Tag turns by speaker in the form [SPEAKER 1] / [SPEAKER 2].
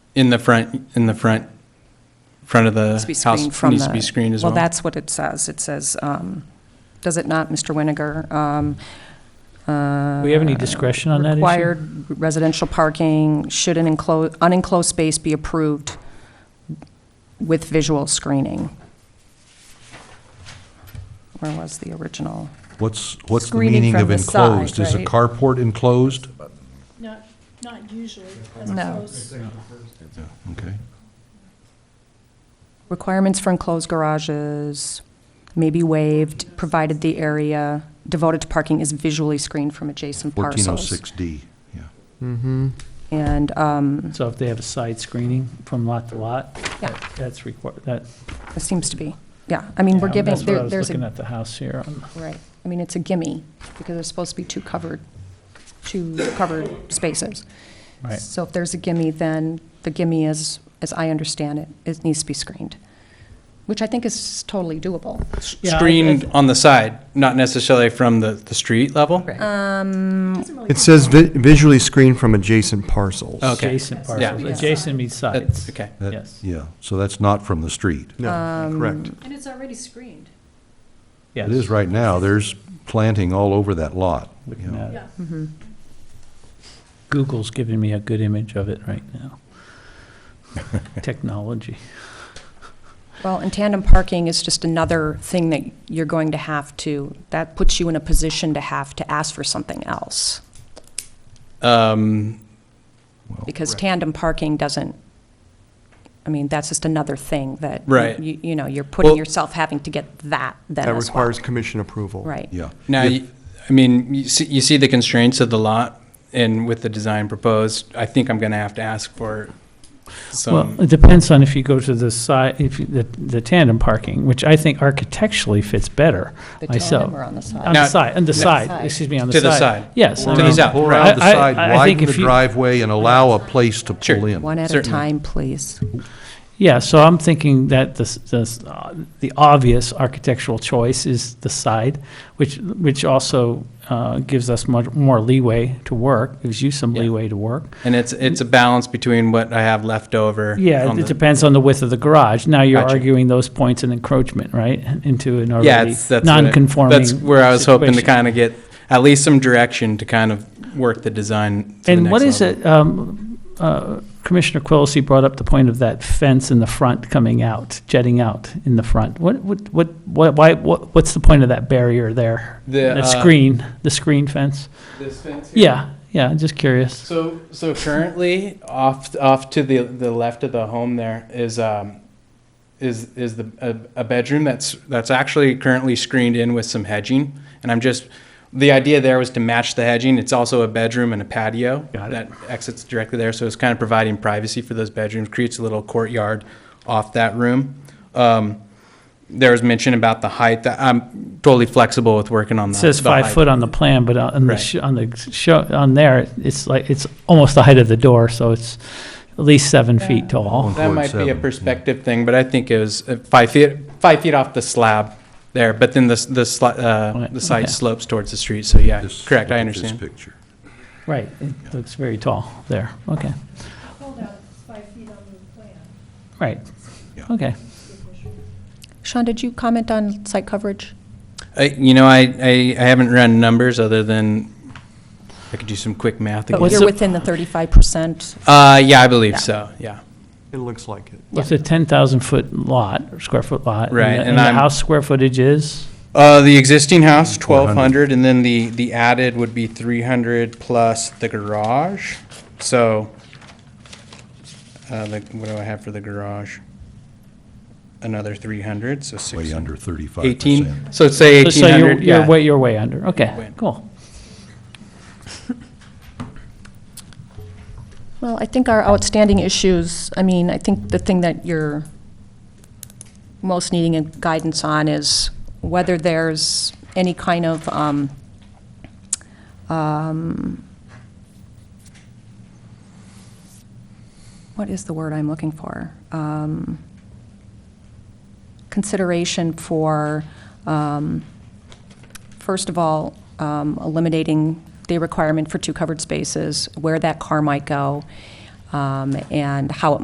[SPEAKER 1] in the front, in the front, front of the
[SPEAKER 2] Needs to be
[SPEAKER 1] house
[SPEAKER 2] screened from
[SPEAKER 1] needs to
[SPEAKER 2] the-
[SPEAKER 1] be screened as well.
[SPEAKER 2] Well, that's what it says. It says, um, does it not, Mr. Winiger? Um,
[SPEAKER 3] Do we have any
[SPEAKER 2] uh,
[SPEAKER 3] discretion on that issue?
[SPEAKER 2] Required residential parking, should an enclosed, unenclosed space be approved with visual screening? Where was the original?
[SPEAKER 4] What's, what's the
[SPEAKER 2] Screening
[SPEAKER 4] meaning
[SPEAKER 2] from
[SPEAKER 4] of
[SPEAKER 2] the side,
[SPEAKER 4] enclosed? Is a
[SPEAKER 2] right?
[SPEAKER 4] carport enclosed?
[SPEAKER 5] Not, not usually.
[SPEAKER 2] No.
[SPEAKER 4] Okay.
[SPEAKER 2] Requirements for enclosed garages may be waived, provided the area devoted to parking is visually screened from adjacent parcels.
[SPEAKER 4] 1406D, yeah.
[SPEAKER 2] And, um,
[SPEAKER 3] So if they have a side screening from lot to lot?
[SPEAKER 2] Yeah.
[SPEAKER 3] that- That's required, that.
[SPEAKER 2] it seems to be, yeah, I mean, we're
[SPEAKER 3] yeah,
[SPEAKER 2] giving,
[SPEAKER 3] That's what I
[SPEAKER 2] there-
[SPEAKER 3] was
[SPEAKER 2] there's
[SPEAKER 3] looking
[SPEAKER 2] a,
[SPEAKER 3] at the house here. um, on-
[SPEAKER 2] right, I mean, it's a gimme, because there's supposed to be two covered, two covered spaces.
[SPEAKER 3] Right.
[SPEAKER 2] So if there's a gimme, then the gimme is, as I understand it, it needs to be screened, which I think is totally doable.
[SPEAKER 3] Yeah, I-
[SPEAKER 1] Screened on the side, not necessarily from the, the street level?
[SPEAKER 2] Um,
[SPEAKER 6] It says vi- visually screened from adjacent parcels.
[SPEAKER 3] Oh.
[SPEAKER 1] Okay.
[SPEAKER 3] Adjacent
[SPEAKER 1] Yeah.
[SPEAKER 3] parcels, adjacent means
[SPEAKER 1] That's,
[SPEAKER 3] sides.
[SPEAKER 1] okay.
[SPEAKER 4] That-
[SPEAKER 3] Yes.
[SPEAKER 4] Yeah, so that's not from the street.
[SPEAKER 6] No, correct.
[SPEAKER 5] And it's already screened.
[SPEAKER 3] Yes.
[SPEAKER 4] It is right now, there's planting all over that lot. you
[SPEAKER 3] Looking
[SPEAKER 4] know.
[SPEAKER 3] at it.
[SPEAKER 5] Yeah.
[SPEAKER 3] Google's giving me a good image of it right now. Technology.
[SPEAKER 2] Well, and tandem parking is just another thing that you're going to have to, that puts you in a position to have to ask for something else,
[SPEAKER 1] Um,
[SPEAKER 2] because tandem parking doesn't, I mean, that's just another thing that.
[SPEAKER 1] Right.
[SPEAKER 2] You, you know, you're putting
[SPEAKER 1] Well-
[SPEAKER 2] yourself having to get that then
[SPEAKER 6] That
[SPEAKER 2] as well.
[SPEAKER 6] requires commission approval.
[SPEAKER 2] Right.
[SPEAKER 4] Yeah.
[SPEAKER 1] Now,
[SPEAKER 4] If-
[SPEAKER 1] you- I mean, you see, you see the constraints of the lot, and with the design proposed, I think I'm gonna have to ask for
[SPEAKER 3] Well,
[SPEAKER 1] some,
[SPEAKER 3] it depends on if you go to the side, if, you- the the tandem parking, which I think architecturally fits better
[SPEAKER 2] The
[SPEAKER 3] myself.
[SPEAKER 2] tandem are on the
[SPEAKER 3] On
[SPEAKER 2] side.
[SPEAKER 1] Now-
[SPEAKER 3] the side, on the side,
[SPEAKER 2] Side.
[SPEAKER 3] excuse me, on the
[SPEAKER 1] To
[SPEAKER 3] side.
[SPEAKER 1] the side.
[SPEAKER 3] Yes. I
[SPEAKER 1] To the
[SPEAKER 3] mean,
[SPEAKER 1] side. out,
[SPEAKER 4] Pour
[SPEAKER 1] right.
[SPEAKER 4] out the
[SPEAKER 3] I- I-
[SPEAKER 4] side,
[SPEAKER 3] I think
[SPEAKER 4] widen the
[SPEAKER 3] if you-
[SPEAKER 4] driveway, and allow a place to
[SPEAKER 1] Sure.
[SPEAKER 4] pull in.
[SPEAKER 2] One at a
[SPEAKER 1] Certainly.
[SPEAKER 2] time, please.
[SPEAKER 3] Yeah, so I'm thinking that the, s- the, s- uh, the obvious architectural choice is the side, which, which also uh, gives us much more leeway to work, gives you some
[SPEAKER 1] Yeah.
[SPEAKER 3] leeway to work.
[SPEAKER 1] and it's, it's a balance between what I have left over.
[SPEAKER 3] Yeah,
[SPEAKER 1] on
[SPEAKER 3] it
[SPEAKER 1] the-
[SPEAKER 3] depends on the width of the garage. Now you're
[SPEAKER 1] Gotcha.
[SPEAKER 3] arguing those points in encroachment, right, into an
[SPEAKER 1] Yeah,
[SPEAKER 3] already
[SPEAKER 1] it's, that's. what I-
[SPEAKER 3] non-conforming.
[SPEAKER 1] That's where I was hoping to
[SPEAKER 3] situation.
[SPEAKER 1] kind of get at least some direction to kind of work the design to the
[SPEAKER 3] And what
[SPEAKER 1] next
[SPEAKER 3] is
[SPEAKER 1] level.
[SPEAKER 3] it, um, uh, Commissioner Quillisi brought up the point of that fence in the front coming out, jetting out in the front. What, what, what, what- why, what, what's the point of that barrier there?
[SPEAKER 1] The,
[SPEAKER 3] That
[SPEAKER 1] uh,
[SPEAKER 3] screen, the screen fence? Yeah, yeah, just curious.
[SPEAKER 1] So, so currently, off off to the the left of the home, there is um, is is the a, a bedroom that's that's actually currently screened in with some hedging, and I'm just the idea there was to match the hedging. It's also a bedroom and a patio
[SPEAKER 3] Got it.
[SPEAKER 1] that exits directly there, so it's kind of providing privacy for those bedrooms. Creates a little courtyard off that room. Um, there was mention about the height. That I'm totally flexible with working on
[SPEAKER 3] It
[SPEAKER 1] the
[SPEAKER 3] says
[SPEAKER 1] the
[SPEAKER 3] five
[SPEAKER 1] height.
[SPEAKER 3] foot on the plan, but on the,
[SPEAKER 1] Right.
[SPEAKER 3] sh- on the show, on there, it's like, it's almost the height of the door, so it's at least seven feet tall.
[SPEAKER 1] That
[SPEAKER 4] Ford
[SPEAKER 1] might be a
[SPEAKER 4] seven, yeah.
[SPEAKER 1] perspective thing, but I think it was uh, five feet, five feet off the slab there, but then the, s- the, sli- uh,
[SPEAKER 3] Right,
[SPEAKER 1] the side
[SPEAKER 3] okay.
[SPEAKER 1] slopes towards the street, so yeah,
[SPEAKER 4] This-
[SPEAKER 1] correct, I
[SPEAKER 4] look at
[SPEAKER 1] understand.
[SPEAKER 4] This picture.
[SPEAKER 3] Right, it looks very tall there, okay,
[SPEAKER 5] Pulled out five feet on the plan.
[SPEAKER 3] right,
[SPEAKER 4] Yeah.
[SPEAKER 3] okay.
[SPEAKER 2] Sean, did you comment on site coverage?
[SPEAKER 1] I, you know, I, I, I haven't run numbers other than, I could do some quick math
[SPEAKER 2] But
[SPEAKER 1] again.
[SPEAKER 2] Oh,
[SPEAKER 3] what's
[SPEAKER 2] you're
[SPEAKER 3] the-
[SPEAKER 2] within the thirty-five percent.
[SPEAKER 1] Uh, yeah, I believe
[SPEAKER 2] Yeah.
[SPEAKER 1] so, yeah.
[SPEAKER 6] It looks like it.
[SPEAKER 3] It's a ten thousand foot lot, or square foot lot. and the-
[SPEAKER 1] Right, and
[SPEAKER 3] And the
[SPEAKER 1] I'm-
[SPEAKER 3] house square footage is,
[SPEAKER 1] Uh, the existing house,
[SPEAKER 4] Mm-hmm.
[SPEAKER 1] twelve
[SPEAKER 4] 1,200,
[SPEAKER 1] hundred, and then the, the added would be three hundred plus the garage, so, uh, the, what do I have for the garage? Another three hundred, so six
[SPEAKER 4] Way
[SPEAKER 1] hundred.
[SPEAKER 4] under 35%.
[SPEAKER 1] 18, so say
[SPEAKER 3] so- so you're,
[SPEAKER 1] 1,800,
[SPEAKER 3] you're
[SPEAKER 1] yeah.
[SPEAKER 3] way, you're way under, okay,
[SPEAKER 1] Win.
[SPEAKER 3] cool.
[SPEAKER 2] Well, I think our outstanding issues, I mean, I think the thing that you're most needing a guidance on is whether there's any kind of, um, um, what is the word I'm looking for? Um, Consideration for, um, first of all, um, eliminating the requirement for two covered spaces, where that car might go, um, and how it